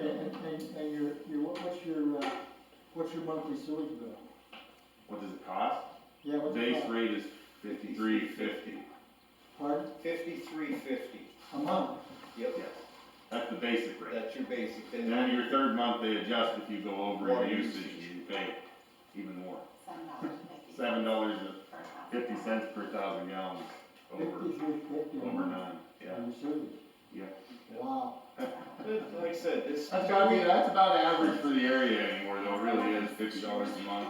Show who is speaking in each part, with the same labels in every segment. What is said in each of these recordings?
Speaker 1: and, and your, your, what- what's your, uh, what's your monthly sewage bill?
Speaker 2: What does it cost?
Speaker 1: Yeah, what's it
Speaker 2: Base
Speaker 1: cost?
Speaker 2: rate is fifty-three fifty.
Speaker 1: Pardon?
Speaker 3: Fifty-three fifty.
Speaker 1: A month?
Speaker 3: Yep,
Speaker 2: Yes. That's the basic rate.
Speaker 3: that's your basic.
Speaker 2: And then your third month, they adjust if you go over your usage, you pay even more.
Speaker 4: Seven dollars fifty.
Speaker 2: Seven dollars and
Speaker 4: per thousand.
Speaker 2: fifty cents per thousand gallons over,
Speaker 1: Fifty-three fifty a
Speaker 2: over
Speaker 1: month
Speaker 2: nine, yeah.
Speaker 1: on your sewage?
Speaker 2: Yeah.
Speaker 1: Wow.
Speaker 3: Like I said, it's.
Speaker 2: That's gotta be, that's about average for the area anymore though, really is fifty dollars a month,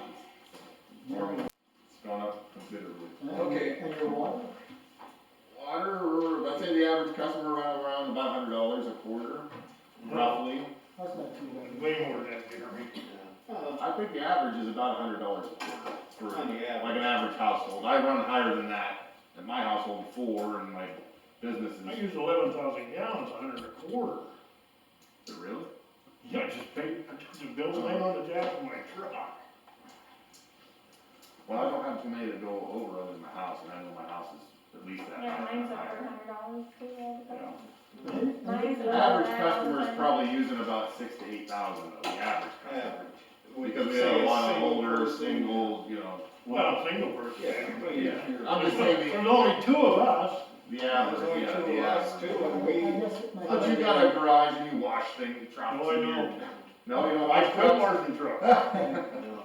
Speaker 2: or it's gone up considerably.
Speaker 1: And-
Speaker 3: Okay.
Speaker 1: And your water?
Speaker 2: Water, I'd say the average customer around, around about hundred dollars a quarter, Mm-hmm. roughly.
Speaker 1: That's not too bad.
Speaker 5: Way more than that, Jeremy.
Speaker 3: Uh,
Speaker 2: I think the average is about hundred dollars a quarter for,
Speaker 3: On the average.
Speaker 2: like an average household. I run higher than that in my household before and my business
Speaker 5: I
Speaker 2: is.
Speaker 5: use eleven thousand gallons, a hundred and a quarter.
Speaker 2: Really?
Speaker 5: Yeah, I just paid, I took the bill right on the jack of my truck.
Speaker 2: Well, I don't have too many that go over other than my house, and I know my house is at least that
Speaker 6: Yeah,
Speaker 2: high.
Speaker 6: mine's over a hundred dollars too, all the time. Mine's
Speaker 2: The
Speaker 6: over
Speaker 2: Average
Speaker 6: $100
Speaker 2: customer is
Speaker 6: a
Speaker 2: probably using about six to eight thousand of the average customer.
Speaker 3: Average. Would
Speaker 2: Because
Speaker 3: you
Speaker 2: we have
Speaker 3: say
Speaker 2: a lot of
Speaker 3: single
Speaker 2: older,
Speaker 3: person?
Speaker 2: single, you know,
Speaker 5: Well, single person.
Speaker 3: Yeah, but
Speaker 2: Yeah.
Speaker 3: if you're.
Speaker 2: I'm just saying the,
Speaker 5: There's only two of us.
Speaker 2: the
Speaker 3: There's only
Speaker 2: average, yeah,
Speaker 3: two
Speaker 2: the
Speaker 3: of us
Speaker 2: average.
Speaker 3: too, and we,
Speaker 2: But you got a garage and you wash things, trucks.
Speaker 5: No, I
Speaker 2: and you-
Speaker 5: don't.
Speaker 2: No, you don't
Speaker 5: I
Speaker 2: wash
Speaker 5: still
Speaker 2: trucks?
Speaker 5: margin truck.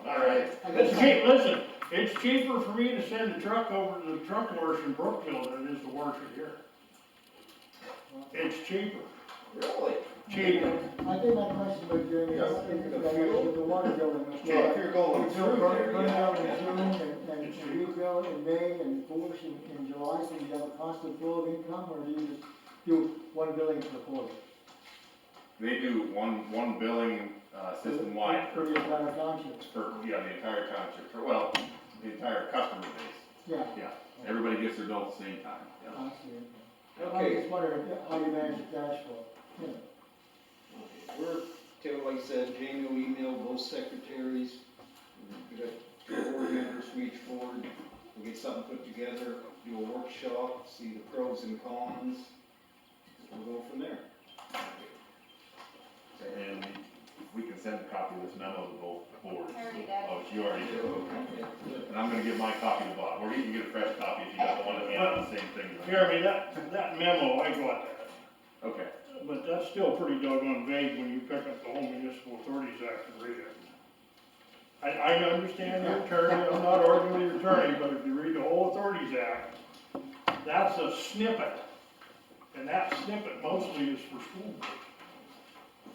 Speaker 2: Alright.
Speaker 5: It's cheap, listen, it's cheaper for me to send the truck over to the truck wash in Brookfield than it is to wash it here. It's cheaper,
Speaker 3: really?
Speaker 5: cheaper.
Speaker 1: I think my question was, Jeremy,
Speaker 2: Yes.
Speaker 1: is about with the water bill and.
Speaker 3: Yeah, if you're going
Speaker 1: We built
Speaker 3: through
Speaker 1: Burn
Speaker 3: there,
Speaker 1: burn down in
Speaker 3: yeah.
Speaker 1: June and, and and rebuild in May and Bush in, in July, so you have a constant flow of income, or do you just do one billing per quarter?
Speaker 2: They do one, one billing, uh, system wide
Speaker 1: For
Speaker 2: for,
Speaker 1: the entire township,
Speaker 2: for, yeah, the entire township, for, well, the entire customer base.
Speaker 1: yeah.
Speaker 2: Yeah, everybody gets their bill at the same time, yeah.
Speaker 1: I see. I was
Speaker 3: Okay,
Speaker 1: just wondering how you manage the cash flow.
Speaker 3: we're, till like I said, Jamie will email both secretaries, we got two board members from each board, we'll get something put together, do a workshop, see the pros and cons, we'll go from there.
Speaker 2: And we can send a copy of this memo to both boards.
Speaker 4: I already did.
Speaker 2: Oh, you already did, okay. And I'm gonna give my copy to Bob, or you can get a fresh copy if you got the one at hand, on the same thing.
Speaker 5: Jeremy, that, that memo, I got that.
Speaker 2: Okay,
Speaker 5: But that's still pretty doggone vague when you pick up the whole municipal authorities act and read it. I, I understand your attorney, I'm not arguing with your attorney, but if you read the whole authorities act, that's a snippet. And that snippet mostly is for school.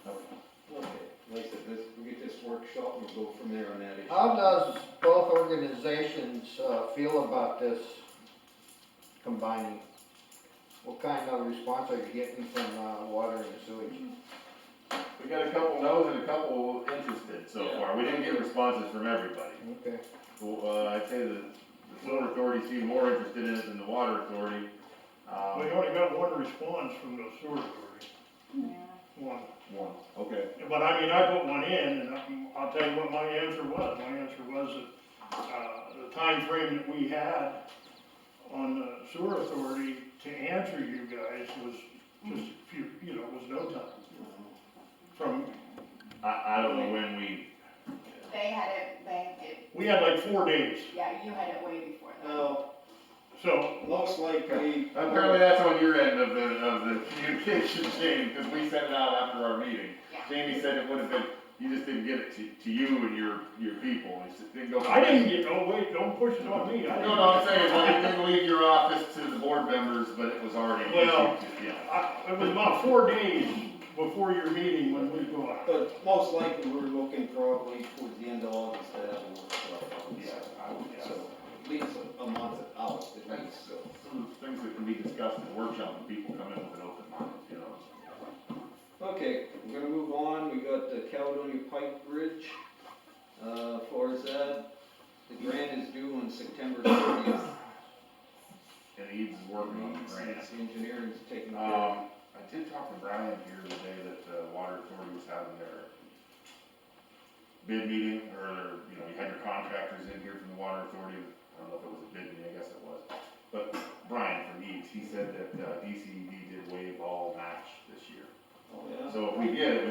Speaker 3: Okay, like I said, this, we get this workshop, we'll go from there on that issue.
Speaker 7: How does both organizations uh, feel about this combining? What kind of response are you getting from uh, water and sewage?
Speaker 2: we got a couple no's and a couple interested so far, we didn't get responses from everybody.
Speaker 7: Okay,
Speaker 2: Well, uh, I'd say the, the sewer authority seemed more interested in it than the water authority. Um,
Speaker 5: We only got one response from the sewer authority,
Speaker 4: Yeah.
Speaker 5: one.
Speaker 2: one, okay.
Speaker 5: But I mean, I put one in, and I'm- I'll tell you what my answer was. My answer was that, uh, the timeframe that we had on the sewer authority to answer you guys was just a few, you know, was no time. From,
Speaker 2: I, I don't know when we,
Speaker 4: They had it, they, it,
Speaker 5: we had like four days,
Speaker 4: yeah, you had it way before
Speaker 2: Oh,
Speaker 4: that.
Speaker 3: Uh,
Speaker 5: so,
Speaker 3: looks like we.
Speaker 2: apparently that's on your end of the, of the communication chain, because we sent it out after our meeting.
Speaker 4: Yeah.
Speaker 2: Jamie said it would have been, you just didn't get it to, to you and your, your people, it just didn't go.
Speaker 5: I didn't get, oh, wait, don't push it on me. I
Speaker 2: No, no, I'm saying, well, it didn't leave your office to the board members, but it was already.
Speaker 5: Well-
Speaker 2: Yeah.
Speaker 5: I- It was about four days before your meeting when we go out.
Speaker 3: But most likely, we're looking probably towards the end of August, to have a workshop.
Speaker 2: Yeah, I would guess.
Speaker 3: So, at least a- a month out, at
Speaker 2: Thanks,
Speaker 3: least, so.
Speaker 2: some things that can be discussed in workshop, and people come in with an open mind, you know?
Speaker 3: Okay, we're gonna move on, we got the Caledonia Pike Bridge, uh, for that, the grant is due on September thirtieth.
Speaker 2: And Eads is working on the grant.
Speaker 3: Engineering's taking care of
Speaker 2: Um, I did talk to Brian here the day that the water authority was having their bid meeting, or their, you know, you had your contractors in here from the water authority, I don't know if it was a bid meeting, I guess it was. But Brian from Eads, E he said that, uh, DCED did waive all match this year.
Speaker 3: Oh, yeah.
Speaker 2: So if we get it, we